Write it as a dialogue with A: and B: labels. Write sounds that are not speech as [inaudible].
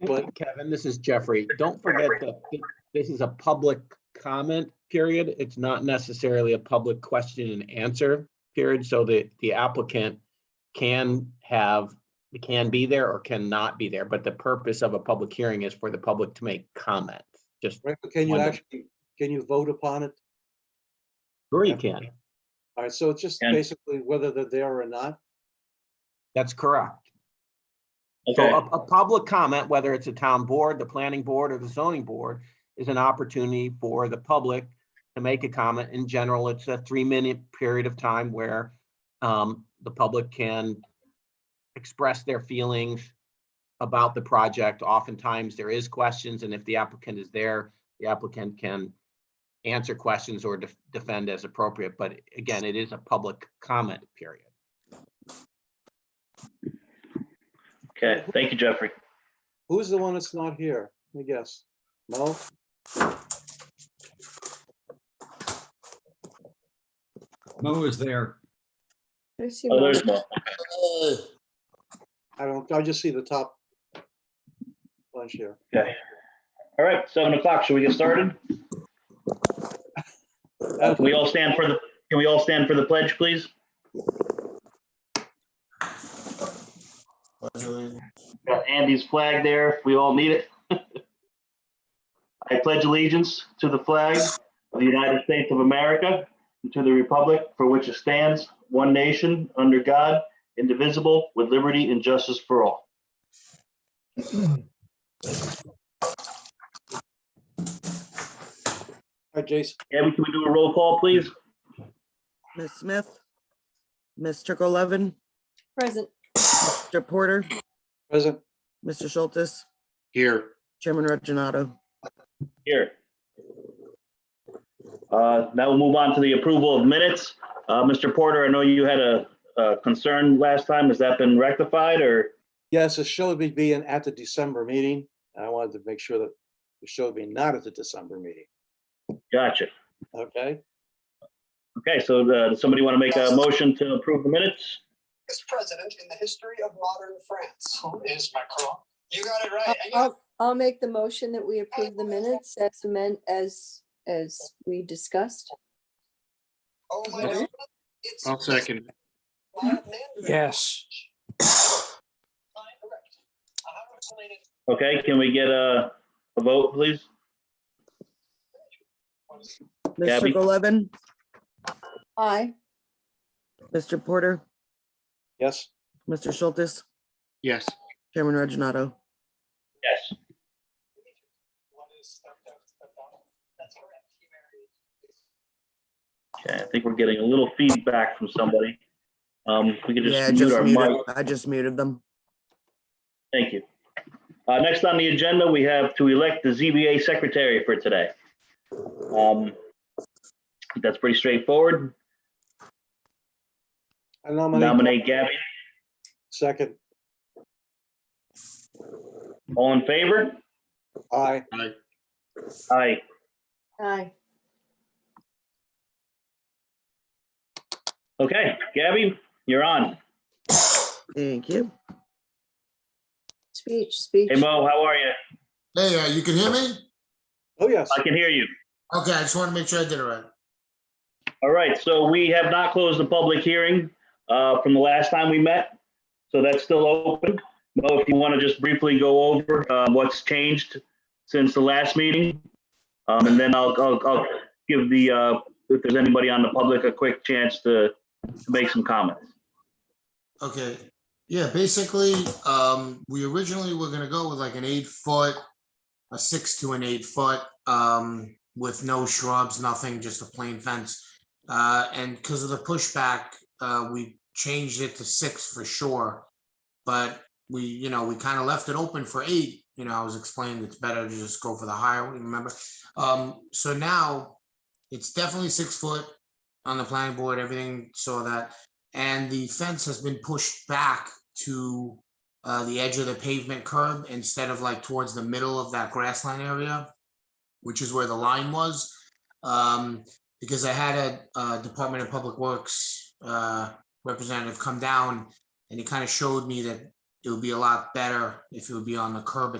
A: But Kevin, this is Jeffrey. Don't forget that thi- this is a public comment period. It's not necessarily a public question and answer period, so that the applicant can have, can be there or cannot be there, but the purpose of a public hearing is for the public to make comments. Just,
B: Right, but can you
A: Wonderful.
B: actually, can you vote upon it?
A: sure you can.
B: All right, so it's just
C: Can.
B: basically whether they're there or not.
A: That's correct. So
C: Okay,
A: a, a public comment, whether it's a town board, the planning board, or the zoning board, is an opportunity for the public to make a comment. In general, it's a three-minute period of time where um, the public can express their feelings about the project. Oftentimes, there is questions, and if the applicant is there, the applicant can answer questions or def- defend as appropriate. But again, it is a public comment period.
C: okay. Thank you, Jeffrey.
B: Who's the one that's not here? Let me guess. Mo?
D: Mo is there.
E: There's your
C: Oh,
E: mom.
C: there's Mo.
B: I don't, I just see the top bunch here.
C: Okay. All right, seven o'clock. Shall we get started? Can we all stand for the, can we all stand for the pledge, please? Got Andy's flag there. if We all need it. [laughs] I pledge allegiance to the flag of the United States of America and to the republic for which it stands, one nation, under God, indivisible, with liberty and justice for all.
B: All right, Jason,
C: Abby, can we do a roll call, please?
F: Ms. Smith, Ms. Levin,
E: Present.
F: Mr. Porter,
B: present.
F: Mr. Schultz,
B: Here.
F: Chairman Reggino.
C: Here. Uh, Now we'll move on to the approval of minutes. Uh, Mr. Porter, I know you had a a concern last time. Has that been rectified or?
B: Yes, it showed me being at the December meeting. and I wanted to make sure that it showed me not at the December meeting,
C: Gotcha.
B: okay?
C: Okay, so uh, does somebody want to make a motion to approve the minutes?
G: longest president in the history of modern France. Who is Macron? You got it
E: I'll-
G: right. And you-
E: I'll I'll make the motion that we approve the minutes as amend, as, as we discussed.
G: Oh, my
E: Okay.
G: God. It's. I'll second. Yes.
C: Okay, can we get a a vote, please?
F: Ms.
C: Gabby.
F: Levin,
E: Aye.
F: Mr. Porter,
B: Yes,
F: Mr. Schultz,
H: Yes,
F: Chairman Reggino.
C: Yes. Okay, I think we're getting a little feedback from somebody. Um, if We could
F: Yeah, I
C: just mute
F: just
C: our
F: muted,
C: mic.
F: I just muted them.
C: Thank you. Uh, next on the agenda, we have to elect the ZBA secretary for today. Um, that's pretty straightforward.
B: I nominate,
C: Nominate Gabby.
B: second,
C: All in favor?
B: aye.
C: Aye.
E: Aye.
C: Okay, Gabby, you're on.
F: Thank you.
E: Speech, speech.
C: Hey Mo, how are you?
I: Hey, uh, you can hear me?
B: Oh, yes,
C: I can hear you.
I: Okay, I just want to make sure I did it right.
C: All right, so we have not closed the public hearing uh, from the last time we met. So that's still open. Mo, if you want to just briefly go over uh, what's changed since the last meeting. um, And then I'll, I'll I'll give the, uh, if there's anybody on the public, a quick chance to to make some comments.
I: Okay, yeah, basically, um, we originally were gonna go with like an eight foot, a six to an eight foot, um, with no shrubs, nothing, just a plain fence. Uh, and because of the pushback, uh, we changed it to six for sure. But we, you know, we kind of left it open for eight, you know, I was explaining it's better to just go for the higher one, remember? Um, so now, it's definitely six foot on the planning board, everything saw that. And the fence has been pushed back to uh, the edge of the pavement curb instead of like towards the middle of that grassland area, which is where the line was. Um, Because I had a uh, Department of Public Works uh, representative come down and he kind of showed me that it would be a lot better if it would be on the curb